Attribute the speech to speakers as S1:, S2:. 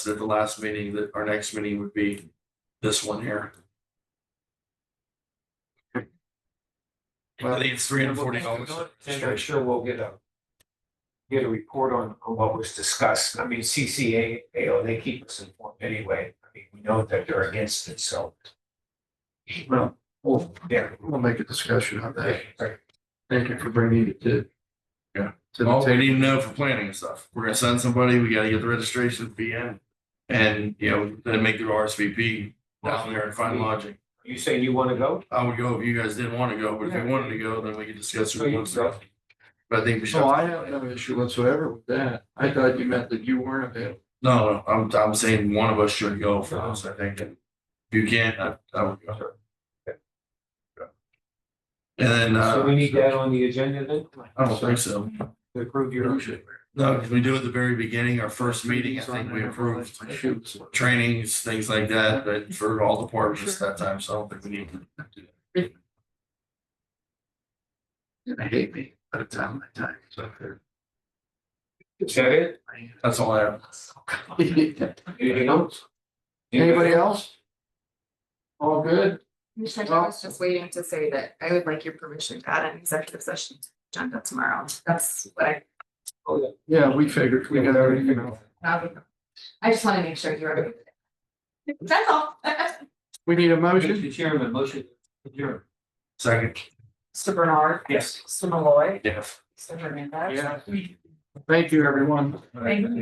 S1: at the last meeting, that our next meeting would be this one here. I think it's three hundred forty dollars.
S2: And I'm sure we'll get a. Get a report on on what was discussed. I mean, CCA, you know, they keep us informed anyway. I mean, we know that they're against it, so. Well, well, yeah.
S3: We'll make a discussion on that.
S2: Right.
S3: Thank you for bringing it to.
S1: Yeah.
S3: To the
S1: All Oh, we
S3: table.
S1: need to know for planning and stuff. We're gonna send somebody, we gotta get the registration fee in. And, you know, then make the RSVP down there and find lodging.
S2: You saying you want to go?
S1: I would go if you guys didn't wanna go, but if you wanted to go, then we could discuss.
S2: So
S1: who
S2: you
S1: wants to
S2: go.
S1: go. But I think we should.
S3: So I have no issue whatsoever with that. I thought you meant that you weren't available.
S1: No, no, I'm, I'm saying one of us should go first, I think, and if you can't, I, I would go. And then,
S2: So we
S1: uh,
S2: need that on the agenda then?
S1: I don't think so,
S2: To approve your.
S3: Appreciate
S1: no, because we do at the very beginning, our first meeting, I think we approved
S3: Shoot.
S1: trainings, things like that, but for all departments that time, so I don't think we need to. do that.
S3: I hate me, but it's on my time, so.
S2: Is that it?
S1: That's all I have.
S2: Anything else?
S3: Anybody else? All good?
S4: Commissioner Tom was just waiting to say that I would like your permission to add an executive session to the agenda tomorrow. That's what I,
S2: Oh, yeah.
S3: Yeah, we figured we got everything.
S4: I would- I just want to make sure you're. okay with it. That's all.
S3: We need a motion?
S2: Mr. Chairman, motion. adjourned.
S1: Second,
S4: Mr. Bernard.
S2: Yes.
S4: Mr. Malloy.
S1: yeah.
S4: Mr. Hernandez.
S3: Yeah. Thank you, everyone.
S4: Thank you.